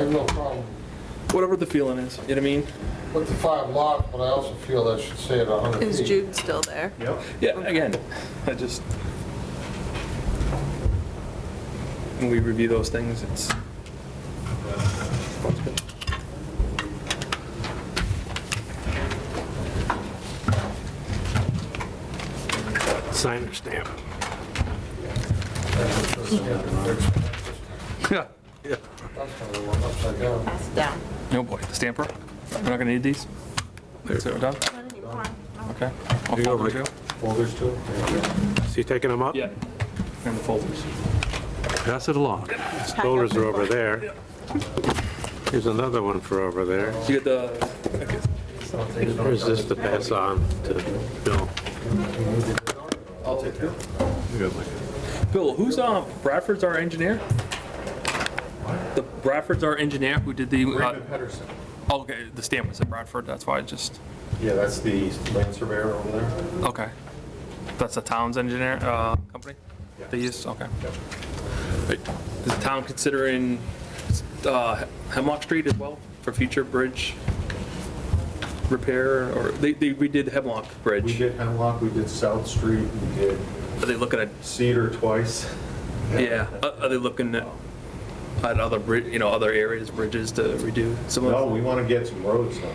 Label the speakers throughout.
Speaker 1: have no problem
Speaker 2: whatever the feeling is, you know what I mean?
Speaker 1: with the five lot, but I also feel that should stay at 100 feet.
Speaker 3: Is Jude still there?
Speaker 4: Yep.
Speaker 2: Yeah, again, I just. When we review those things, it's.
Speaker 4: Sign or stamp.
Speaker 2: Yeah.
Speaker 1: That's gonna be one upside down.
Speaker 3: Pass it down.
Speaker 2: No boy, the stamper? We're not gonna need these? So we're done? Okay. I'll
Speaker 4: you go,
Speaker 2: fold them
Speaker 4: Mike.
Speaker 2: too.
Speaker 1: Folders too?
Speaker 4: So you taking them up?
Speaker 2: Yeah. And the folders.
Speaker 4: Pass it along. Those Folders are over there. Here's another one for over there.
Speaker 2: You get the,
Speaker 4: Here's this to pass on to Bill.
Speaker 2: I'll take that. Bill, who's, um, Bradford's our engineer? The Bradford's our engineer who did the, uh,
Speaker 5: Raymond Pedersen.
Speaker 2: oh, okay, the stamp was at Bradford, that's why I just,
Speaker 5: Yeah, that's the land surveyor over there.
Speaker 2: okay. That's the town's engineer, uh, company? They use, okay. Is the town considering, uh, Hemlock Street as well for future bridge repair or, they, they redid Hemlock
Speaker 5: We
Speaker 2: Bridge?
Speaker 5: did Hemlock, we did South Street, we did
Speaker 2: Are they looking at
Speaker 5: Cedar twice.
Speaker 2: Yeah, are are they looking at at other, bri- you know, other areas, bridges to redo some
Speaker 5: No, we
Speaker 2: of?
Speaker 5: want to get some roads done.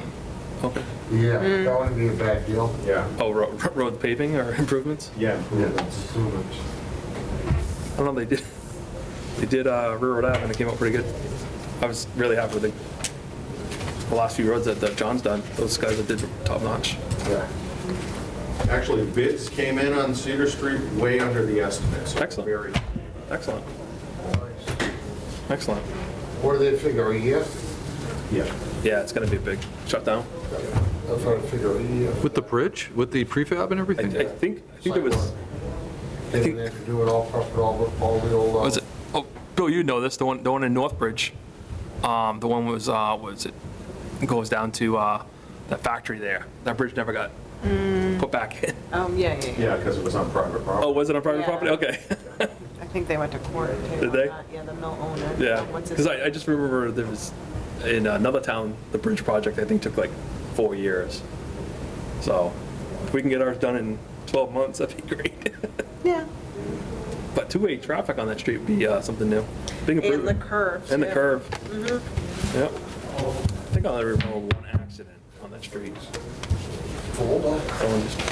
Speaker 2: Okay.
Speaker 1: Yeah, that wouldn't be a bad deal.
Speaker 5: Yeah.
Speaker 2: Oh, ro- ro- road paving or improvements?
Speaker 5: Yeah,
Speaker 1: Yeah,
Speaker 5: improvements.
Speaker 1: that's too much.
Speaker 2: I don't know, they did, they did uh, Railroad Ave and it came out pretty good. I was really happy with the, the last few roads that that John's done, those guys that did top notch.
Speaker 5: Yeah. Actually, bids came in on Cedar Street way under the estimate, so
Speaker 2: Excellent.
Speaker 5: very,
Speaker 2: Excellent, excellent.
Speaker 1: What do they figure, a year?
Speaker 5: yeah.
Speaker 2: Yeah, it's gonna be a big shutdown.
Speaker 1: That's what I figure, uh, a year.
Speaker 6: With the bridge, with the prefab
Speaker 2: I I
Speaker 6: and everything?
Speaker 2: think, I think it was,
Speaker 1: They
Speaker 2: think-
Speaker 1: didn't have to do it all, prep it all, all the old. uh,
Speaker 2: was it, oh, Bill, you know this, the one, the one in Northbridge. Um, the one was, uh, was it, goes down to, uh, that factory there. That bridge never got put back in.
Speaker 3: Oh, yeah, yeah, yeah.
Speaker 5: Yeah, because it was on private
Speaker 2: Oh,
Speaker 5: property.
Speaker 2: was it on private
Speaker 3: Yeah.
Speaker 2: property? Okay,
Speaker 3: I think they went to court too.
Speaker 2: Did
Speaker 3: on
Speaker 2: they?
Speaker 3: that. Yeah, the mill owner.
Speaker 2: yeah.
Speaker 3: What's his
Speaker 2: Cause I, I just remember there was, in another town, the bridge project, I think, took like four years. So if we can get ours done in 12 months, that'd be great.
Speaker 3: Yeah.
Speaker 2: But two-way traffic on that street would be, uh, something new. Big
Speaker 3: And the
Speaker 2: improvement.
Speaker 3: curve.
Speaker 2: And the
Speaker 3: too. Mm-hmm.
Speaker 2: curve. Yep. I think I only remember one accident on that street.
Speaker 1: Fold up.
Speaker 2: Someone just-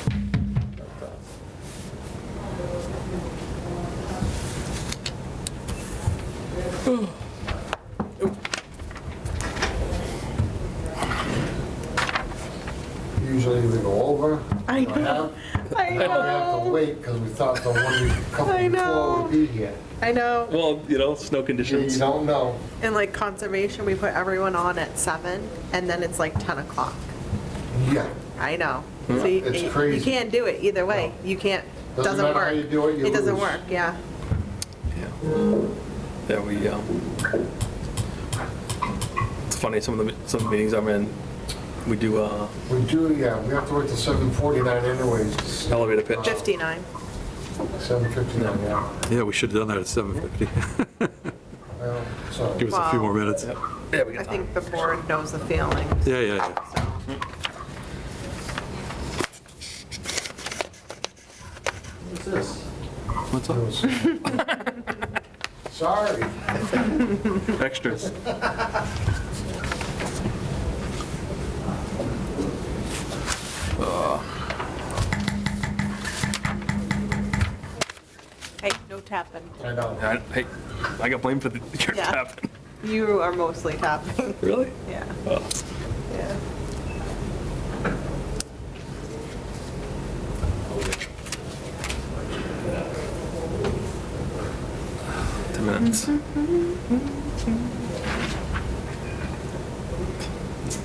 Speaker 1: Usually we go over.
Speaker 3: I
Speaker 1: you
Speaker 3: know. I
Speaker 1: Now we have to
Speaker 3: know.
Speaker 1: wait because we thought the one we
Speaker 3: I
Speaker 1: couple
Speaker 3: know.
Speaker 1: before would be here.
Speaker 3: I know.
Speaker 2: Well, you know, snow
Speaker 1: You
Speaker 2: conditions.
Speaker 1: don't know.
Speaker 3: And like conservation, we put everyone on at seven and then it's like 10 o'clock.
Speaker 1: Yeah.
Speaker 3: I know.
Speaker 2: Hmm.
Speaker 3: So you-
Speaker 1: It's
Speaker 3: you- You
Speaker 1: crazy.
Speaker 3: can't do it either way. You can't,
Speaker 1: Doesn't
Speaker 3: doesn't work.
Speaker 1: matter how you do it, you
Speaker 3: It doesn't
Speaker 1: lose.
Speaker 3: work, yeah.
Speaker 2: Yeah. Yeah, we, um, it's funny, some of the, some meetings I'm in, we do, uh,
Speaker 1: We do, yeah, we have to wait till 7:49 anyways.
Speaker 2: elevator
Speaker 1: Uh,
Speaker 2: pitch.
Speaker 3: 59.
Speaker 1: 7:59, yeah.
Speaker 6: Yeah, we should have done that at 7:50.
Speaker 1: Well, so-
Speaker 6: Give us a few more minutes.
Speaker 2: Yeah, we
Speaker 3: I
Speaker 2: got time.
Speaker 3: think the board knows the feeling.
Speaker 6: Yeah, yeah, yeah.
Speaker 2: What's up?
Speaker 1: Sorry.
Speaker 2: Extras.
Speaker 3: Hey, no tapping.
Speaker 1: I know.
Speaker 2: I- Hey, I got blamed for the, your
Speaker 3: Yeah.
Speaker 2: tapping.
Speaker 3: You are mostly tapping,
Speaker 2: Really?
Speaker 3: yeah.
Speaker 2: Oh.
Speaker 3: Yeah.
Speaker 2: Ten minutes.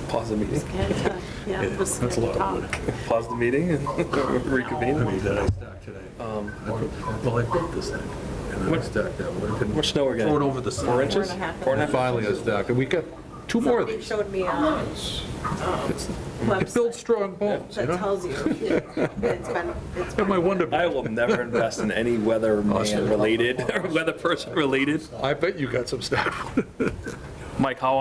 Speaker 2: Pause the meeting.
Speaker 3: And, uh, Yeah, just
Speaker 4: That's a lot of
Speaker 3: talk.
Speaker 2: Pause the meeting and reconvene.
Speaker 4: that I stacked today.
Speaker 2: Um,
Speaker 4: Well, I broke this thing, and then I stacked that one. I couldn't
Speaker 2: Much snow we're
Speaker 4: throw it
Speaker 2: getting?
Speaker 4: over the
Speaker 2: Four
Speaker 4: side.
Speaker 2: inches?
Speaker 3: Four and a half.
Speaker 2: Four and a half?
Speaker 6: Finally, it's docked. We got two more of
Speaker 3: They
Speaker 6: these.
Speaker 3: showed me a
Speaker 6: It builds
Speaker 3: website
Speaker 6: strong bones, you
Speaker 3: that
Speaker 6: know?
Speaker 3: tells you that it's been, it's
Speaker 6: And
Speaker 3: been.
Speaker 6: my wonder,
Speaker 2: I will never invest in any weather man related or weather person related.
Speaker 6: I bet you got some stuff.
Speaker 2: Mike, how